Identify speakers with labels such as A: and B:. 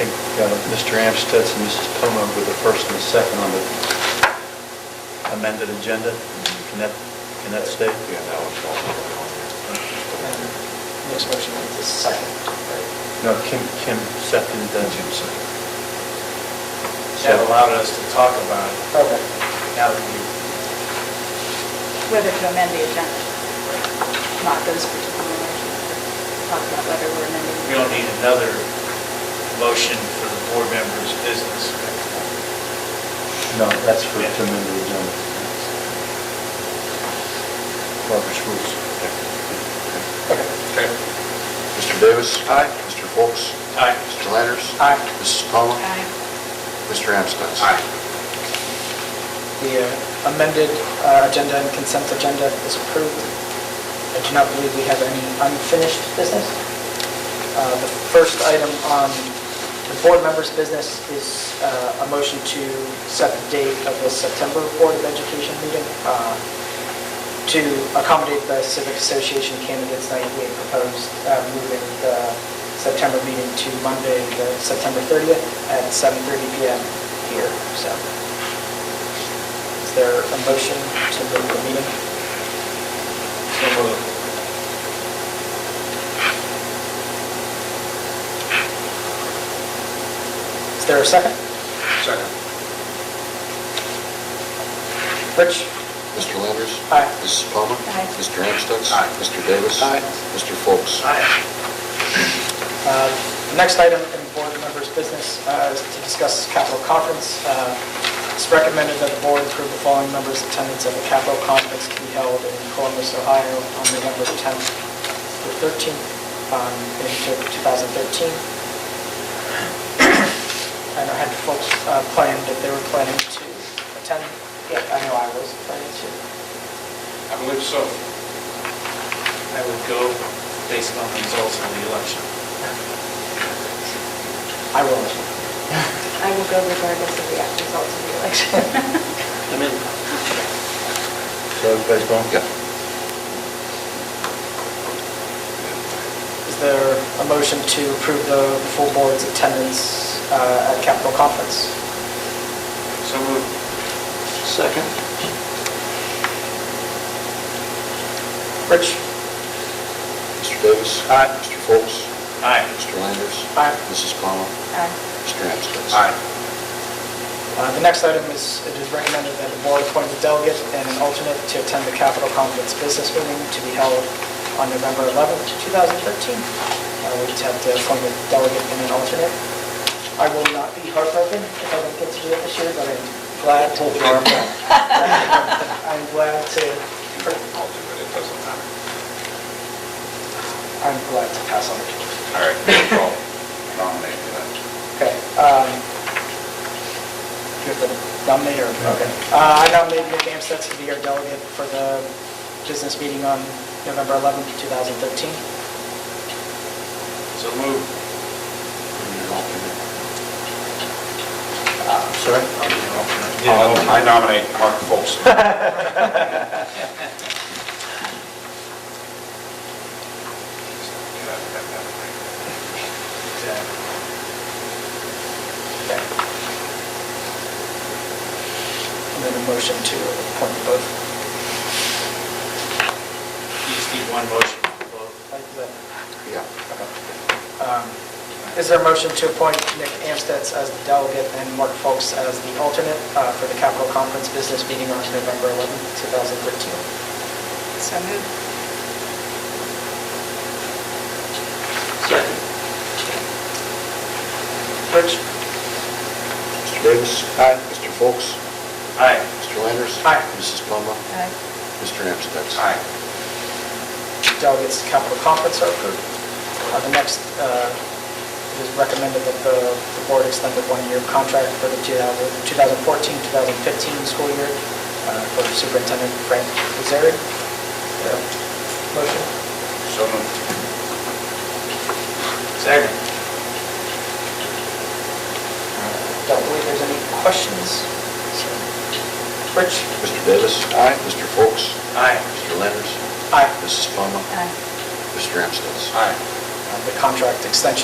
A: think uh, Mr. Amstutz and Mrs. Poma were the first and the second on the amended agenda. Can that, can that stay?
B: Yeah, that was all.
C: Next motion is the second.
A: No, Kim, Kim seconded that.
D: That allowed us to talk about it.
C: Okay.
D: Now that you,
E: whether to amend the agenda, not those particular motions, but talk about whether we're amending.
D: we don't need another motion for the board members' business.
A: No, that's for to amend the agenda. Robert's rules.
B: Okay. Mr. Davis?
C: Aye.
B: Mr. Foltz?
D: Aye.
B: Mr. Landers?
C: Aye.
B: Mrs. Palmer?
E: Aye.
B: Mr. Amstutz?
C: The uh, amended uh, agenda and consent agenda is approved. I do not believe we have any unfinished business. Uh, The first item on the board members' business is uh, a motion to set the date of the September Board of Education meeting uh, to accommodate the Civic Association candidates night. We had proposed uh, moving the September meeting to Monday, the September 30th at 7:30 PM here, so. Is there a motion to move the meeting?
D: So moved.
C: Is there a second?
B: Second.
C: Rich?
B: Mr. Landers?
C: Aye.
B: Mrs. Palmer?
E: Aye.
B: Mr. Amstutz?
D: Aye.
B: Mr. Davis?
C: Aye.
B: Mr. Foltz?
D: Aye.
C: Uh, the Next item in board members' business uh, is to discuss capital conference. Uh, It's recommended that the board approve the following members' attendance at the capital conference to be held in Columbus, Ohio on November 10th through 13th um, in 2013. I know I had folks uh, planned that they were planning to attend. Yeah, I know I was planning to.
D: I believe so. I would go based on the results of the election.
C: I will.
E: I will go regardless of the actual results of the election.
D: I'm in.
A: So everybody's going?
B: Yeah.
C: Is there a motion to approve the full board's attendance uh, at Capitol Conference?
D: So moved.
B: Second.
C: Rich?
B: Mr. Davis? Aye. Mr. Foltz?
D: Aye.
B: Mr. Landers?
C: Aye.
B: Mrs. Palmer?
E: Aye.
B: Mr. Amstutz?
C: Uh, The next item is, it is recommended that the board appoint a delegate and an alternate to attend the Capitol Conference business meeting to be held on November 11th, 2013. Uh, We just have to appoint a delegate and an alternate. I will not be heartbroken if I don't get to do it this year, but I'm glad to... I'm glad to,
B: I'll do it, it doesn't matter.
C: I'm glad to pass on the job.
B: All right, I'll nominate you then.
C: Okay. um, You have to nominate her.
A: Okay.
C: Uh, I nominate Nick Amstutz to be our delegate for the business meeting on November 11th, 2013.
D: So moved.
A: Sorry?
B: I nominate Mark Foltz.
C: And then a motion to appoint both.
D: You just need one motion for both.
C: Like the-
B: Yeah.
C: um, Is there a motion to appoint Nick Amstutz as the delegate and Mark Folks as the alternate uh, for the Capitol Conference business meeting on November 11th, 2013?
E: So moved.
C: Rich?
B: Mr. Davis? Aye. Mr. Foltz?
D: Aye.
B: Mr. Landers?
C: Aye.
B: Mrs. Palmer?
E: Aye.
B: Mr. Amstutz?
C: delegates to capital conference are approved. Uh, The next, uh, it is recommended that the the board extend the one-year contract for the 2014-2015 school year uh, for Superintendent Frank Kazari. Motion?
D: So moved. Second.
C: Don't believe there's any questions. So, Rich?
B: Mr. Davis? Aye. Mr. Foltz?
D: Aye.
B: Mr. Landers?
C: Aye.
B: Mrs. Palmer?
E: Aye.
B: Mr. Amstutz?
D: Aye.
C: Uh, The contract extension